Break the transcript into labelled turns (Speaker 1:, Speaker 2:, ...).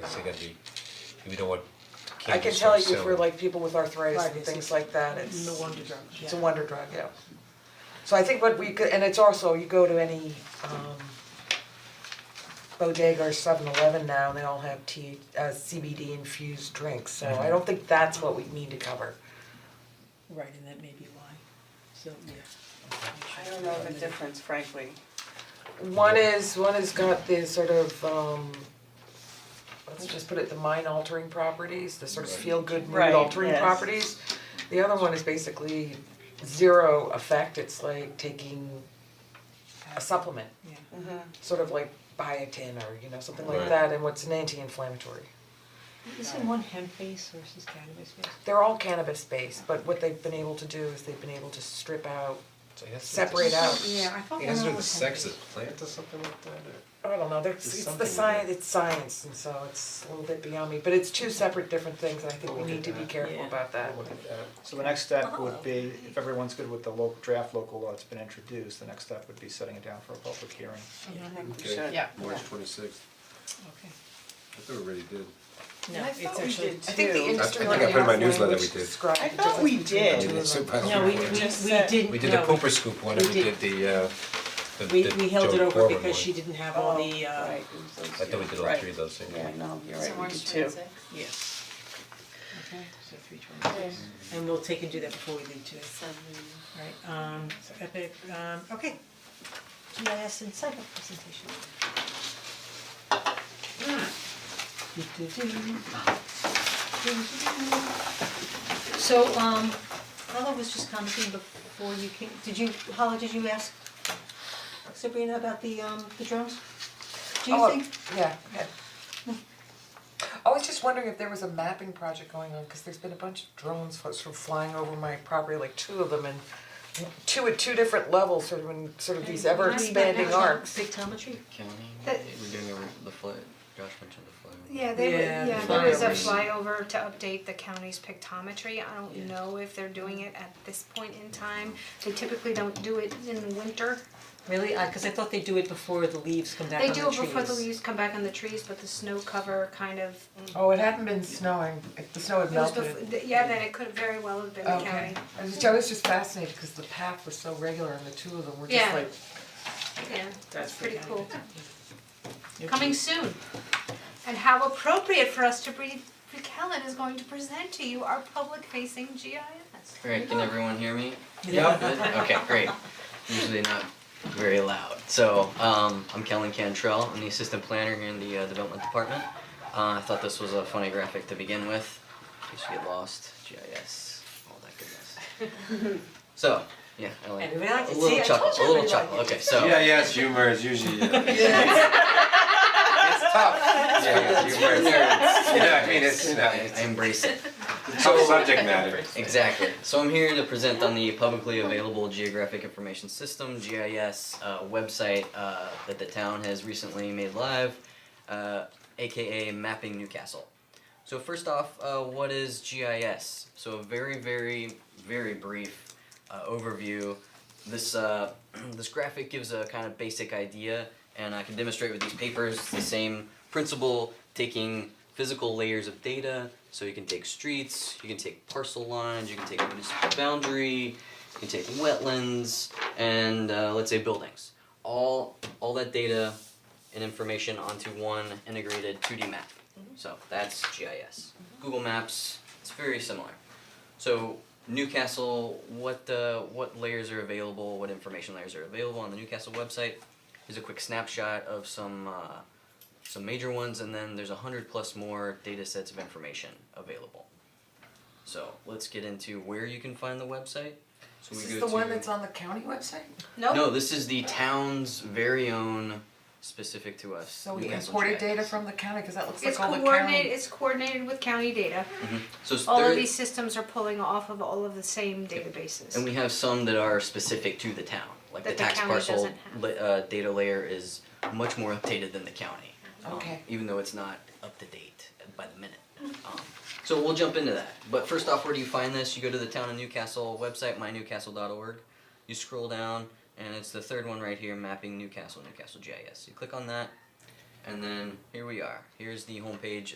Speaker 1: it's gonna be, we don't want
Speaker 2: I can
Speaker 1: candy
Speaker 2: tell
Speaker 1: stores
Speaker 2: you for
Speaker 1: selling.
Speaker 2: like people with arthritis
Speaker 3: Right,
Speaker 2: and
Speaker 3: it's
Speaker 2: things
Speaker 3: a-
Speaker 2: like that, it's
Speaker 3: No wonder drugs,
Speaker 2: it's a
Speaker 3: yeah.
Speaker 2: wonder drug, yeah. So I think what we could, and it's also, you go to any um bodega or seven eleven now, and they all have T uh CBD infused drinks, so I don't think that's what we need to cover.
Speaker 3: Right, and that may be why, so, yeah.
Speaker 4: I don't know the difference frankly.
Speaker 2: One is, one has got the sort of um, let's just put it, the mind altering properties, the sort of feel good mood
Speaker 4: Right,
Speaker 2: altering
Speaker 4: yes.
Speaker 2: properties. The other one is basically zero effect, it's like taking a supplement,
Speaker 3: Yeah,
Speaker 2: sort of like biotin or, you know, something like
Speaker 1: Right.
Speaker 2: that, and what's an anti-inflammatory.
Speaker 3: isn't one hemp based versus cannabis based?
Speaker 2: They're all cannabis based, but what they've been able to do is they've been able to strip out,
Speaker 1: So it has to do
Speaker 2: separate
Speaker 1: with-
Speaker 2: out,
Speaker 3: I thought
Speaker 1: It has to do with the sex of the plant or something like that, or?
Speaker 2: I don't know, there's, it's the
Speaker 1: something
Speaker 2: science, it's science, and so it's a little bit beyond me, but it's two separate different things, and I think we
Speaker 1: We'll look
Speaker 2: need to
Speaker 1: at
Speaker 2: be
Speaker 1: that.
Speaker 2: careful
Speaker 3: Yeah.
Speaker 2: about Oh, that.
Speaker 1: Look at that.
Speaker 5: uh, So the next step would be, if everyone's good with the local, draft local law that's been introduced, the next step would be setting it down for a public hearing.
Speaker 4: I think we
Speaker 6: Okay.
Speaker 4: should.
Speaker 6: Yeah. March twenty-sixth,
Speaker 3: Okay.
Speaker 6: I thought we already did.
Speaker 3: No,
Speaker 4: I
Speaker 3: it's
Speaker 4: thought we
Speaker 3: actually,
Speaker 4: did
Speaker 2: I think the
Speaker 4: too.
Speaker 2: industry
Speaker 6: I
Speaker 2: one
Speaker 6: think I
Speaker 2: has
Speaker 6: put in my
Speaker 2: language
Speaker 6: newsletter we
Speaker 2: to
Speaker 6: did.
Speaker 2: describe
Speaker 4: I
Speaker 2: the
Speaker 4: thought we
Speaker 2: difference between the two
Speaker 4: did.
Speaker 6: I mean, it's
Speaker 2: of
Speaker 6: so
Speaker 2: them.
Speaker 6: bad.
Speaker 3: no, we we
Speaker 4: just
Speaker 3: we
Speaker 4: said-
Speaker 3: didn't,
Speaker 1: We did the
Speaker 3: no,
Speaker 1: pooper scoop one, and we
Speaker 3: we
Speaker 1: did
Speaker 3: did.
Speaker 1: the uh, the
Speaker 3: we
Speaker 1: the
Speaker 3: we held
Speaker 1: Joe
Speaker 3: it over
Speaker 1: Gorman
Speaker 3: because
Speaker 1: one.
Speaker 3: she didn't have all the
Speaker 4: Oh,
Speaker 3: uh,
Speaker 4: right, it was those
Speaker 1: I thought we
Speaker 4: two.
Speaker 1: did all
Speaker 4: Right.
Speaker 1: three of those things.
Speaker 4: Yeah, no, you're
Speaker 7: So
Speaker 4: right, we
Speaker 7: March
Speaker 4: did two.
Speaker 7: 26th.
Speaker 3: yes. Okay, so three twenty-six, and we'll take and do that before we leave today. Right, um, so Epic, um, okay. GIS and cycle presentation. Do-do-do.
Speaker 7: So, um, Ella was just commenting before you came, did you, Hala, did you ask Sabrina about the, um, the drones? Do you
Speaker 2: Oh,
Speaker 7: think,
Speaker 2: yeah, go ahead. I was just wondering if there was a mapping project going on, cause there's been a bunch of drones fl- sort of flying over my property, like two of them, and two at two different levels, sort of in, sort of these ever expanding arcs.
Speaker 7: pictometry?
Speaker 8: County,
Speaker 9: That-
Speaker 8: we're doing over the flood, Josh mentioned the flood.
Speaker 9: Yeah, they,
Speaker 3: Yeah,
Speaker 9: were- yeah,
Speaker 3: the
Speaker 9: there was a
Speaker 8: flyover.
Speaker 9: flyover to update the county's pictometry, I don't know if they're doing it at this point in time. They typically don't do it in the winter,
Speaker 3: Really, I, cause I thought they do it before the leaves come back on
Speaker 9: they
Speaker 3: the trees.
Speaker 9: do it before the leaves come back on the trees, but the snow cover kind of,
Speaker 2: Oh, it hadn't been snowing, It- the snow had
Speaker 9: it was
Speaker 2: melted.
Speaker 9: before, yeah, then it could very well have been the county.
Speaker 2: Okay, I was just, I was just fascinated, cause the path was so regular and the two of them were just
Speaker 9: Yeah.
Speaker 2: like,
Speaker 9: Yeah, that's pretty cool.
Speaker 3: You're
Speaker 9: Coming soon. And how appropriate for us to breathe, Rick Helen is going to present to you our public facing GIS.
Speaker 8: Alright, can everyone hear me?
Speaker 3: Yeah.
Speaker 8: Good? Okay, great. Usually not very loud. So, um, I'm Kellen Cantrell, I'm the assistant planner here in the uh, development department. Uh, I thought this was a funny graphic to begin with, in case you get lost, GIS, all that goodness. So, yeah, I like,
Speaker 3: Everybody liked
Speaker 8: a
Speaker 3: it. See,
Speaker 8: little
Speaker 3: I
Speaker 8: chuckle,
Speaker 3: told you
Speaker 8: a little
Speaker 3: everybody
Speaker 8: chuckle,
Speaker 3: liked
Speaker 8: okay, so.
Speaker 6: Yeah, yeah, it's humor, it's usually, yeah,
Speaker 8: It's tough.
Speaker 6: yeah, it's humor, it's, you know, I mean, it's, you know,
Speaker 8: I
Speaker 6: it's
Speaker 8: embrace it.
Speaker 6: tough subject matter.
Speaker 8: Exactly. So I'm here to present on the publicly available geographic information system (GIS) uh, website uh, that the town has recently made live, uh, aka Mapping Newcastle. So first off, uh, what is GIS? So a very, very, very brief uh, overview. This uh, this graphic gives a kind of basic idea, and I can demonstrate with these papers the same principle, taking physical layers of data. So you can take streets, you can take parcel lines, you can take municipal boundary, you can take wetlands, and uh, let's say buildings. All all that data and information onto one integrated 2D map.
Speaker 2: Mm-hmm.
Speaker 8: So that's GIS. Google Maps, it's very similar. So Newcastle, what uh, what layers are available, what information layers are available on the Newcastle website? Here's a quick snapshot of some uh, some major ones, and then there's a hundred plus more data sets of information available. So let's get into where you can find the website. So
Speaker 2: this
Speaker 8: we
Speaker 2: is
Speaker 8: go
Speaker 2: the one
Speaker 8: to-
Speaker 2: that's on the county website?
Speaker 8: no, this is the town's very own, specific to us.
Speaker 2: So we
Speaker 8: Newcastle
Speaker 2: imported
Speaker 8: GIS.
Speaker 2: data from the county, cause that looks
Speaker 9: It's
Speaker 2: like all the county.
Speaker 9: coordinated, it's coordinated with county data.
Speaker 8: So s-
Speaker 9: All
Speaker 8: Mm-hmm. there-
Speaker 9: of these systems are pulling off of all of the same databases.
Speaker 8: and we have some that are specific to the town, like
Speaker 9: That
Speaker 8: the
Speaker 9: the
Speaker 8: tax
Speaker 9: county
Speaker 8: parcel
Speaker 9: doesn't have.
Speaker 8: la- uh, data layer is much more updated than the county. um,
Speaker 2: Okay.
Speaker 8: even though it's not up to date by the minute. Um, so we'll jump into that. But first off, where do you find this? You go to the town of Newcastle website, mynewcastle.org. You scroll down, and it's the third one right here, mapping Newcastle, Newcastle GIS. You click on that, And then here we are. Here's the homepage